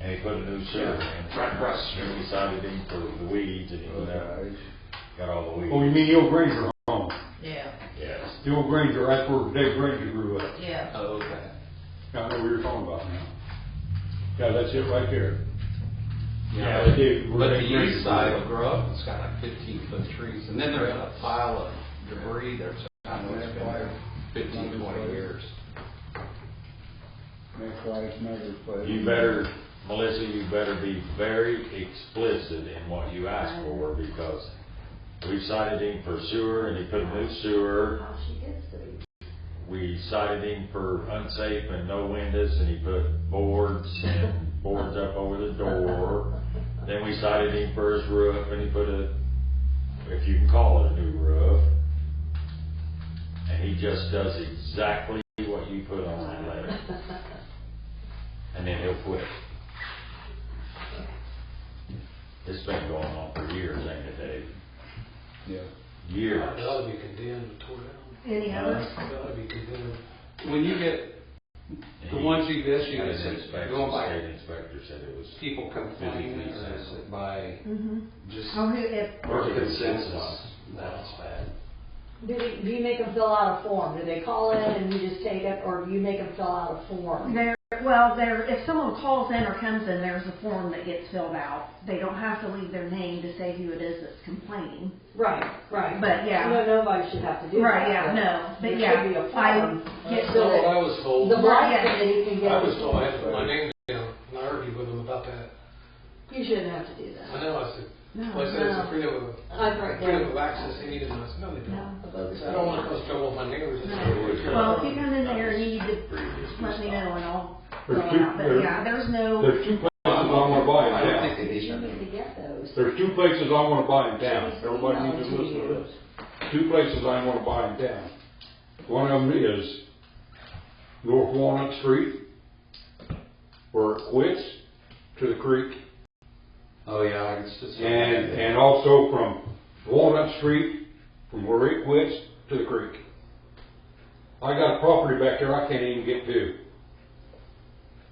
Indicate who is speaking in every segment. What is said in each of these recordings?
Speaker 1: they put a new sewer in.
Speaker 2: Right across the
Speaker 1: New
Speaker 2: street.
Speaker 1: deciding for the weeds and, you know, got all the weeds.
Speaker 3: Oh, you mean the old Granger home?
Speaker 4: Yeah,
Speaker 1: Yes.
Speaker 3: The old Granger, that's where Dave Granger grew up.
Speaker 4: yeah.
Speaker 2: Oh, okay.
Speaker 3: Yeah, I know what you're talking about now. Oh, Yeah, that's it right there.
Speaker 1: Yeah,
Speaker 3: they do.
Speaker 2: But the inside will grow up, it's got like fifteen foot trees, and then they're in a pile of debris there, so I know it's been there fifteen, twenty years.
Speaker 5: Next life, never play.
Speaker 1: You better, Melissa, you better be very explicit in what you ask for, because we cited him for sewer, and he put a new sewer.
Speaker 4: How she gets to be.
Speaker 1: We cited him for unsafe and no windows, and he put boards and boards up over the door. Then we cited him for his roof, and he put a, if you can call it a new roof. And he just does exactly what you put on that letter, and then he'll quit. It's been going on for years, ain't it, Dave?
Speaker 5: Yeah.
Speaker 1: Years.
Speaker 6: It ought to be condemned and tore down.
Speaker 4: Any others?
Speaker 6: It ought to be condemned.
Speaker 2: When you get the ones you've issued,
Speaker 1: Had an
Speaker 2: it's
Speaker 1: inspector,
Speaker 2: going by
Speaker 1: State inspector said it was.
Speaker 2: people complaining, or is it by
Speaker 4: Mm-hmm.
Speaker 2: just
Speaker 4: Oh, who, if,
Speaker 2: or
Speaker 1: Or
Speaker 2: consensus?
Speaker 1: consensus.
Speaker 2: That's bad.
Speaker 7: Do they, do you make them fill out a form? Do they call in and you just take it, or do you make them fill out a form?
Speaker 4: there, well, there, if someone calls in or comes in, there's a form that gets filled out. They don't have to leave their name to say who it is that's complaining.
Speaker 7: Right, right.
Speaker 4: But, yeah.
Speaker 7: No, nobody should have to do that.
Speaker 4: Right, yeah, no, but
Speaker 7: There should
Speaker 4: yeah,
Speaker 7: be a
Speaker 4: I
Speaker 7: form.
Speaker 6: That's
Speaker 7: Get
Speaker 6: not
Speaker 7: the-
Speaker 6: what I was told.
Speaker 7: The blind committee can
Speaker 6: I was
Speaker 7: get,
Speaker 6: told, I had to put my name down, and I argued with them about that.
Speaker 7: you shouldn't have to do
Speaker 6: I
Speaker 7: that.
Speaker 6: know, I said,
Speaker 4: No,
Speaker 6: well, I said, it's
Speaker 7: no.
Speaker 6: a freedom of,
Speaker 7: I've heard
Speaker 6: freedom of
Speaker 7: that.
Speaker 6: access, they need it, and I said, no, they don't.
Speaker 7: No.
Speaker 6: I said, I don't want to cause trouble with my neighbors. I said,
Speaker 1: uh,
Speaker 4: Well, if you come in there, you need to let me know and I'll fill
Speaker 3: There's
Speaker 4: it
Speaker 3: two,
Speaker 4: out, but
Speaker 3: there-
Speaker 4: yeah, there's no,
Speaker 3: there's two places I wanna buy
Speaker 2: I
Speaker 3: in
Speaker 2: don't
Speaker 3: town.
Speaker 2: think they need
Speaker 7: You
Speaker 2: that.
Speaker 7: need to get those.
Speaker 3: There's two places I wanna buy in town.
Speaker 7: Should we
Speaker 3: Everybody needs to
Speaker 7: email it
Speaker 3: listen to
Speaker 7: you?
Speaker 3: this. Two places I wanna buy in town. One of them is North Walnut Street, where it quits to the creek.
Speaker 2: Oh, yeah, it's just.
Speaker 3: And, and also from Walnut Street, from where it quits to the creek. I got a property back there I can't even get to.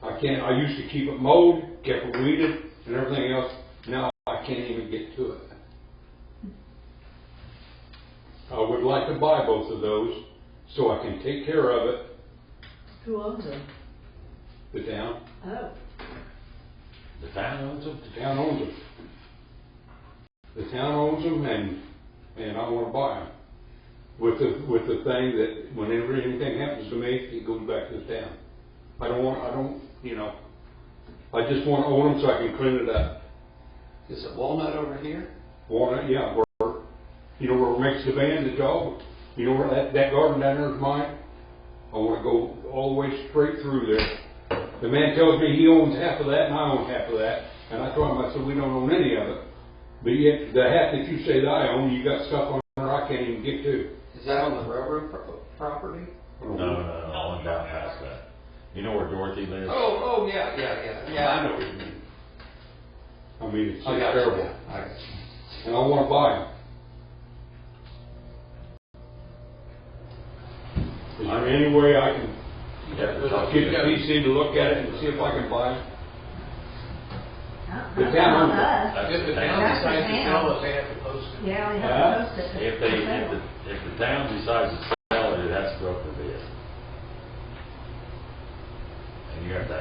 Speaker 3: I can't, I used to keep it mowed, kept it weeded and everything else, now I can't even get to it. I would like to buy both of those, so I can take care of it,
Speaker 7: Who owns them?
Speaker 3: the town,
Speaker 7: Oh,
Speaker 1: The town owns them?
Speaker 3: the town owns them. The town owns them and, and I wanna buy them. With the, with the thing that whenever anything happens to me, it goes back to the town. I don't want, I don't, you know, I just wanna own them so I can clean it up.
Speaker 2: Is it Walnut over here?
Speaker 3: Wanna, yeah, where, you know, where it makes the band, the dog, you know, where that, that garden down there is mine. I wanna go all the way straight through there. The man tells me he owns half of that and I own half of that, and I told him, I said, we don't own any of it. But yet, the half that you say that I own, you got stuff on there I can't even get to.
Speaker 2: Is that on the railroad pro- property?
Speaker 1: No, no, no, on down past that. You know where Dorothy lives?
Speaker 2: Oh, oh, yeah, yeah, yeah, yeah, I know what you mean.
Speaker 3: I mean, it's
Speaker 2: I got you,
Speaker 3: terrible,
Speaker 2: I got you.
Speaker 3: and I wanna buy them. Is there any way I can
Speaker 1: You have to talk to
Speaker 3: Get the
Speaker 1: them.
Speaker 3: PC to look at it and see if I can buy it.
Speaker 4: uh-uh, not
Speaker 3: The town owns it.
Speaker 4: us.
Speaker 1: That's
Speaker 6: If the
Speaker 1: the
Speaker 6: town
Speaker 1: town.
Speaker 4: That's the
Speaker 6: decides to
Speaker 4: town.
Speaker 6: sell it, they have to post it.
Speaker 4: Yeah, we
Speaker 3: Huh?
Speaker 4: have to post it.
Speaker 1: If they, if the, if the town decides to sell it, it has to go up for bid. And you have to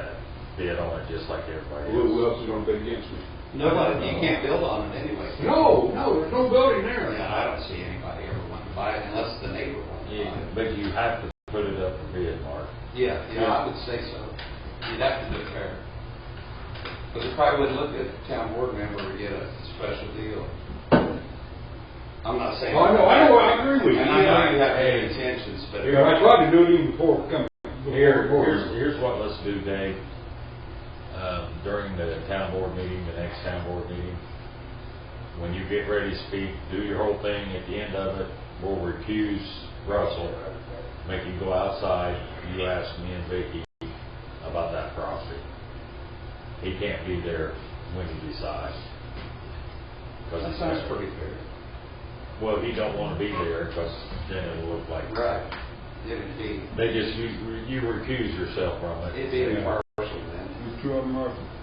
Speaker 1: bid on it just like everybody else.
Speaker 3: Who else is gonna bid against me?
Speaker 2: Nobody, you can't build on it anyway.
Speaker 3: there's no building
Speaker 2: Yeah, I don't see anybody ever wanting to buy it unless the neighbor wants to buy
Speaker 1: Yeah,
Speaker 2: it.
Speaker 1: but you have to put it up for bid, Mark.
Speaker 2: Yeah, yeah, I would say so. You'd have to do it fair. But it probably wouldn't look good if a town board member to get a special deal. I'm not saying.
Speaker 3: Oh, I know, I know, I agree with you.
Speaker 2: And I know you have
Speaker 1: Hey.
Speaker 2: good intentions, but.
Speaker 3: Yeah, I tried to do it even before coming.
Speaker 1: Here, here's, here's what let's do, Dave. Um, during the town board meeting, the next town board meeting, when you get ready to speak, do your whole thing. At the end of it, we'll recuse Russell, make him go outside. You ask me and Vicky about that property. He can't be there when you decide. 'Cause
Speaker 2: That
Speaker 1: he's-
Speaker 2: sounds pretty fair.
Speaker 1: Well, he don't wanna be there, cause then it'll look like,
Speaker 2: Right. It'd be,
Speaker 1: they just, you, you recuse yourself from it.
Speaker 2: it'd be impartial then.
Speaker 5: You two of them are